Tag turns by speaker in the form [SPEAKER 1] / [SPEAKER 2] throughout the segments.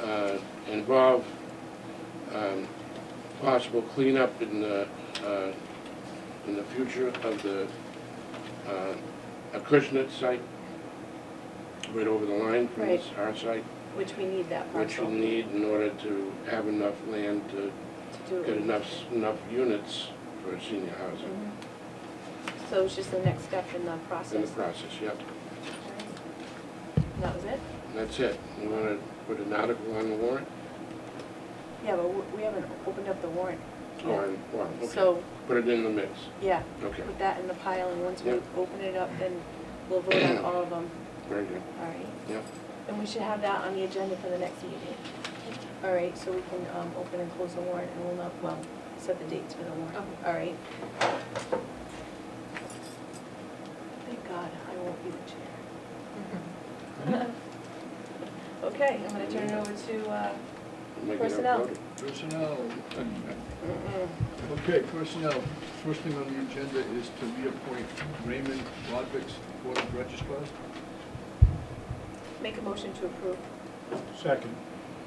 [SPEAKER 1] uh, involve um, possible cleanup in the, uh, in the future of the uh, Acushnet site, right over the line from this, our site,
[SPEAKER 2] Which we need that
[SPEAKER 1] which you
[SPEAKER 2] parcel to
[SPEAKER 1] need in order to have enough land to
[SPEAKER 2] do.
[SPEAKER 1] get
[SPEAKER 2] it.
[SPEAKER 1] enough, enough units for senior housing
[SPEAKER 2] Mhm. So it's just the next step in the process.
[SPEAKER 1] in the process, yep.
[SPEAKER 2] And That was it?
[SPEAKER 1] And That's it. You want to put an article on the warrant?
[SPEAKER 2] Yeah, but we- we haven't opened up the warrant.
[SPEAKER 1] Oh, on- well, okay.
[SPEAKER 2] So,
[SPEAKER 1] Put it in the mix,
[SPEAKER 2] yeah,
[SPEAKER 1] okay.
[SPEAKER 2] put that in the pile, and once we
[SPEAKER 1] Yeah.
[SPEAKER 2] open it up, then we'll vote on all of them,
[SPEAKER 1] Very good.
[SPEAKER 2] all right?
[SPEAKER 1] Yeah.
[SPEAKER 2] And we should have that on the agenda for the next meeting. All right, so we can um, open and close the warrant, and we'll not, well, set the dates for the warrant. All right? Thank God, I won't be the chair. Okay, I'm gonna turn it over to, uh,
[SPEAKER 1] Make it up,
[SPEAKER 2] Personnel.
[SPEAKER 1] vote it.
[SPEAKER 3] Personnel. Okay, personnel. First thing on the agenda is to reappoint Raymond Rodrick's Board of Registrars.
[SPEAKER 2] make a motion to approve.
[SPEAKER 4] Second.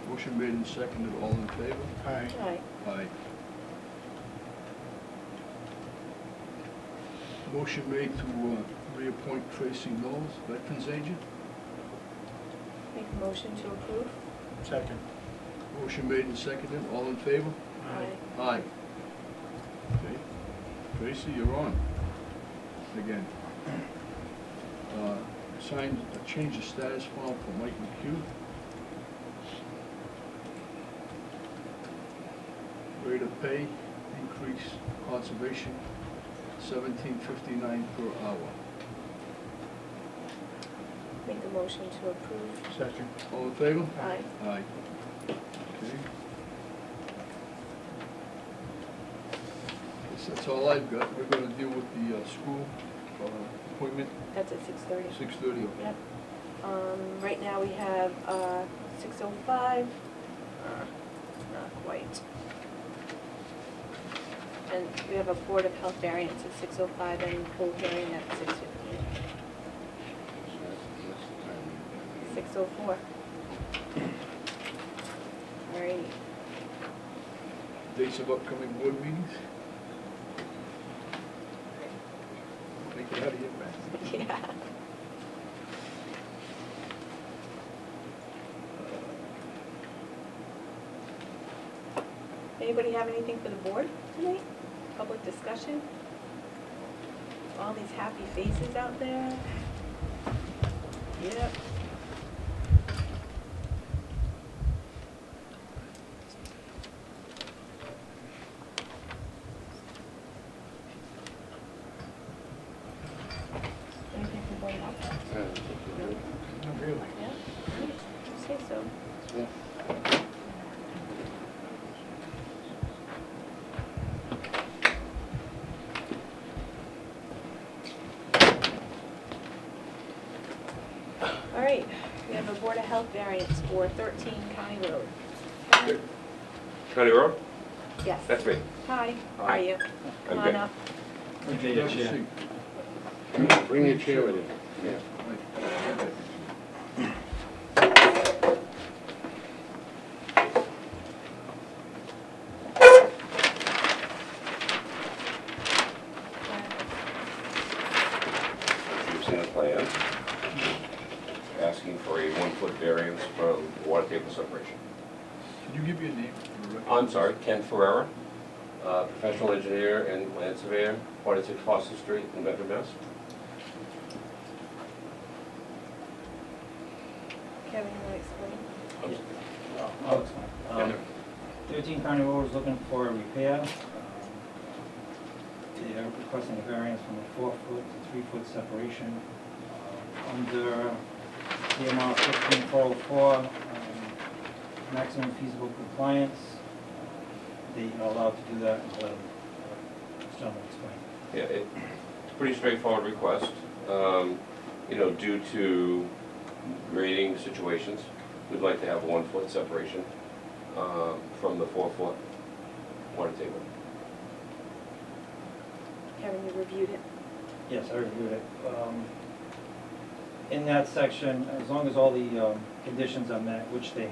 [SPEAKER 3] Motion made and seconded, all in favor?
[SPEAKER 4] Aye.
[SPEAKER 2] Aye.
[SPEAKER 3] Aye. Motion made to uh, reappoint Tracy Knowles, Veterans Agent.
[SPEAKER 2] Make a motion to approve.
[SPEAKER 4] Second.
[SPEAKER 3] Motion made and seconded, all in favor? Aye. Okay. Tracy, you're on. Again. Uh, Signed a change of status form for Mike McHugh. Rate of pay increase conservation seventeen fifty-nine per hour.
[SPEAKER 2] Make a motion to approve.
[SPEAKER 4] Second.
[SPEAKER 3] All in favor?
[SPEAKER 2] Aye.
[SPEAKER 3] Aye. Okay. Guess that's all I've got. We're gonna deal with the uh, school uh, appointment,
[SPEAKER 2] That's at six thirty.
[SPEAKER 3] six thirty.
[SPEAKER 2] Yep. Um, right now we have, uh, six oh five. Uh, Not quite. And we have a Board of Health variance at six oh five and full hearing at six fifteen,
[SPEAKER 1] So that's the time.
[SPEAKER 2] six oh four. All right.
[SPEAKER 3] Dates of upcoming board meetings? Make it out of here, man.
[SPEAKER 2] Yeah. Anybody have anything for the board tonight? Public discussion? All these happy faces out there? Yep. Anything for board up?
[SPEAKER 1] Uh, okay.
[SPEAKER 4] Not really.
[SPEAKER 2] Yeah? I'd say so.
[SPEAKER 1] Yeah.
[SPEAKER 2] All right, we have a Board of Health variance for 13 County Road.
[SPEAKER 5] County Road?
[SPEAKER 2] Yes.
[SPEAKER 5] That's me.
[SPEAKER 2] Hi, how
[SPEAKER 5] Hi.
[SPEAKER 2] are you? Come on
[SPEAKER 5] good.
[SPEAKER 2] up.
[SPEAKER 3] Have a seat.
[SPEAKER 1] Bring your chair with you. Yeah.
[SPEAKER 3] Mike, have it.
[SPEAKER 5] Using the plan, asking for a one-foot variance from water table separation.
[SPEAKER 3] Can you give me a name? for the record?
[SPEAKER 5] I'm sorry, Ken Ferrera, uh, professional engineer and land surveyor, 46 Foster Street in Medford, Mass.
[SPEAKER 2] Kevin, you want to explain?
[SPEAKER 6] Oh, it's fine. Um, Thirteen County Road is looking for a repair. Um, They are requesting a variance from a four-foot to three-foot separation. Um, Under CMR fifteen four oh four, maximum feasible compliance, they are allowed to do that until, uh, it's done, it's fine.
[SPEAKER 5] Yeah, it- it's a pretty straightforward request, Um, you know, due to grading situations, we'd like to have one-foot separation um, from the four-foot water table.
[SPEAKER 2] Kevin, you reviewed it.
[SPEAKER 6] Yes, I reviewed it. Um, In that section, as long as all the um, conditions are met, which they